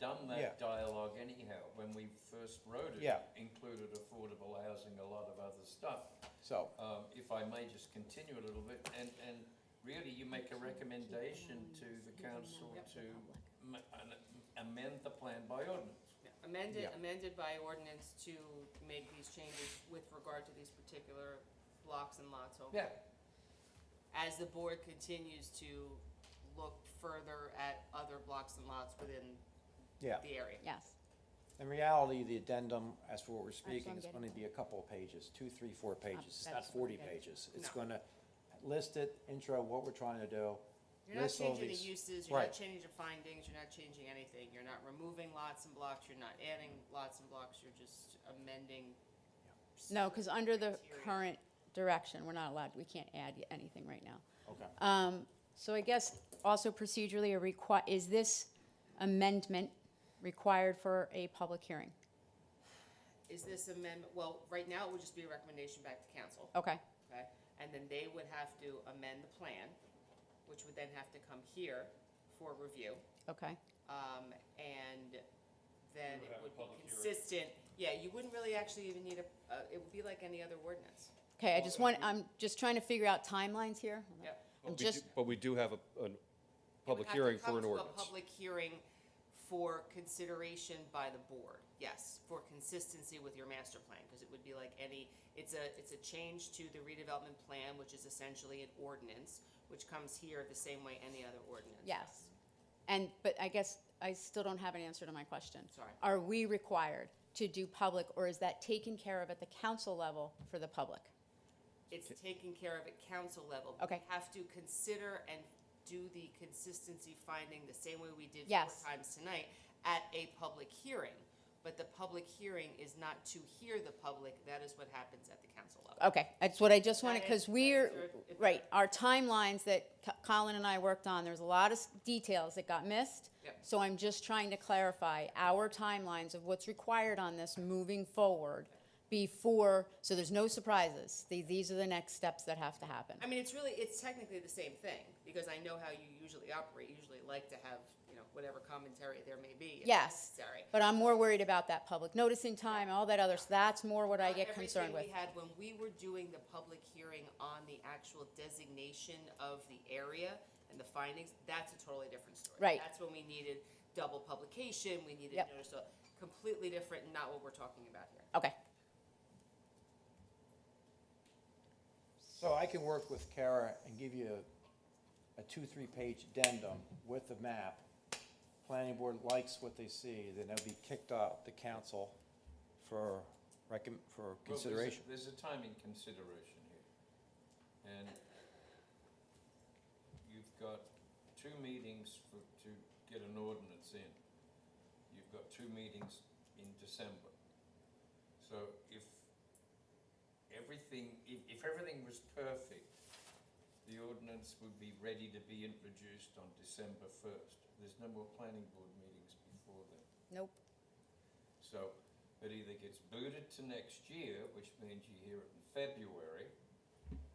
done Yeah. that dialogue anyhow, when we first wrote it. Yeah. Included affordable housing, a lot of other stuff. So, Um, if I may just continue a little bit, and, and really you make a recommendation to the council to ma- an- amend the plan by ordinance. Amended, Yeah. amended by ordinance to make these changes with regard to these particular blocks and lots over. Yeah, As the board continues to look further at other blocks and lots within yeah, the area. Yes, in reality, the addendum, as for what we're speaking, I'm is getting gonna be a couple of pages, two, three, four pages, it's not that's what forty it is. pages. It's No. gonna list it, intro, what we're trying to do, You're not list all changing the these- uses, you're not right. changing the findings, you're not changing anything, you're not removing lots and blocks, you're not adding lots and blocks, you're just amending. no, because under the Criteria. current direction, we're not allowed, we can't add y- anything right now. okay. Um, so I guess also procedurally, a requi- is this amendment required for a public hearing? Is this amendment, well, right now it would just be a recommendation back to council. Okay, okay? And then they would have to amend the plan, which would then have to come here for review. okay, Um, and then You would it have a would be public hearing. consistent. Yeah, you wouldn't really actually even need a, uh, it would be like any other ordinance. okay, I just want, I'm just trying to figure out timelines here. Yep. I'm But we do- just, But we do have a, a It would public have to hearing for come an to a ordinance. Public hearing for consideration by the board, yes, for consistency with your master plan, because it would be like any, it's a, it's a change to the redevelopment plan, which is essentially an ordinance, which comes here the same way any other ordinance. yes. And, but I guess I still don't have an answer to my question. Sorry. Are we required to do public, or is that taken care of at the council level for the public? it's taken care of at council level. Okay. We have to consider and do the consistency finding the same way we did Yes. four times tonight at a public hearing. But the public hearing is not to hear the public, that is what happens at the council level. Okay, that's what I just wanted, That because is- that we're, is your- if- right, our timelines that Co- Colin and I worked on, there's a lot of s- details that got missed. Yep. So I'm just trying to clarify our timelines of what's required on this moving forward before, so there's no surprises. The- These are the next steps that have to happen. I mean, it's really, it's technically the same thing, because I know how you usually operate, you usually like to have, you know, whatever commentary there may be. if Yes, Necessary. but I'm more worried about that public noticing time, all that other, so that's more what I Not get concerned with. Everything we had when we were doing the public hearing on the actual designation of the area and the findings, that's a totally different story. Right. That's when we needed double publication, we needed Yep. notice, of- completely different, not what we're talking about here. Okay, So I can work with Kara and give you a- a two, three-page addendum with the map. Planning board likes what they see, then it'll be kicked out to council for recomm, for Well, there's a- consideration. There's a timing consideration here. And you've got two meetings for, to get an ordinance in. You've got two meetings in December. So if everything, if, if everything was perfect, the ordinance would be ready to be introduced on December first. There's no more planning board meetings before then. nope, So it either gets booted to next year, which means you hear it in February,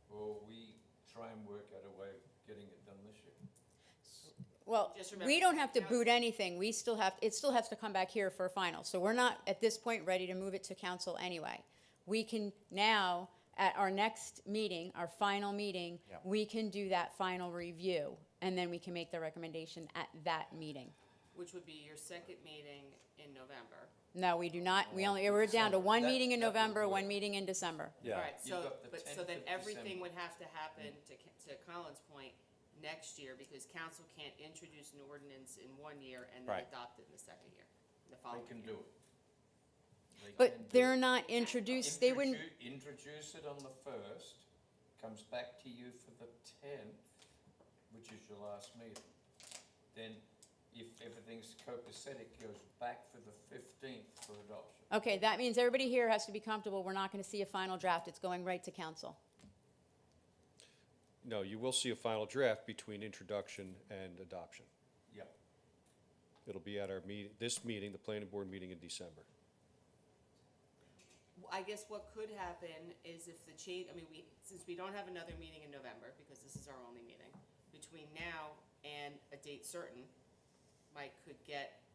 or we try and work out a way of getting it done this year. Well, Just we remember, don't have to council- boot anything, we still have, it still has to come back here for a final, so we're not, at this point, ready to move it to council anyway. We can now, at our next meeting, our final meeting, Yeah. we can do that final review, and then we can make the recommendation at that meeting. Which would be your second meeting in November. No, we do not, we only, we're down to one That- meeting in that would November, work. one meeting in December. Yeah. Alright, You've so, got the but, so 10th then of everything December. would have to happen, to, Ca- to Colin's point, next year, because council can't introduce an ordinance in one year and then Right. adopt it in the second year, the They following year. can do it. They can do But they're it. not introduced, they wouldn't, Introdu- Introduce it on the first, comes back to you for the tenth, which is your last meeting. Then if everything's copacetic, goes back for the fifteenth for adoption. okay, that means everybody here has to be comfortable, we're not gonna see a final draft, it's going right to council. No, you will see a final draft between introduction and adoption. Yep. It'll be at our meeting, this meeting, the planning board meeting in December. I guess what could happen is if the change, I mean, we, since we don't have another meeting in November, because this is our only meeting, between now and a date certain, Mike could get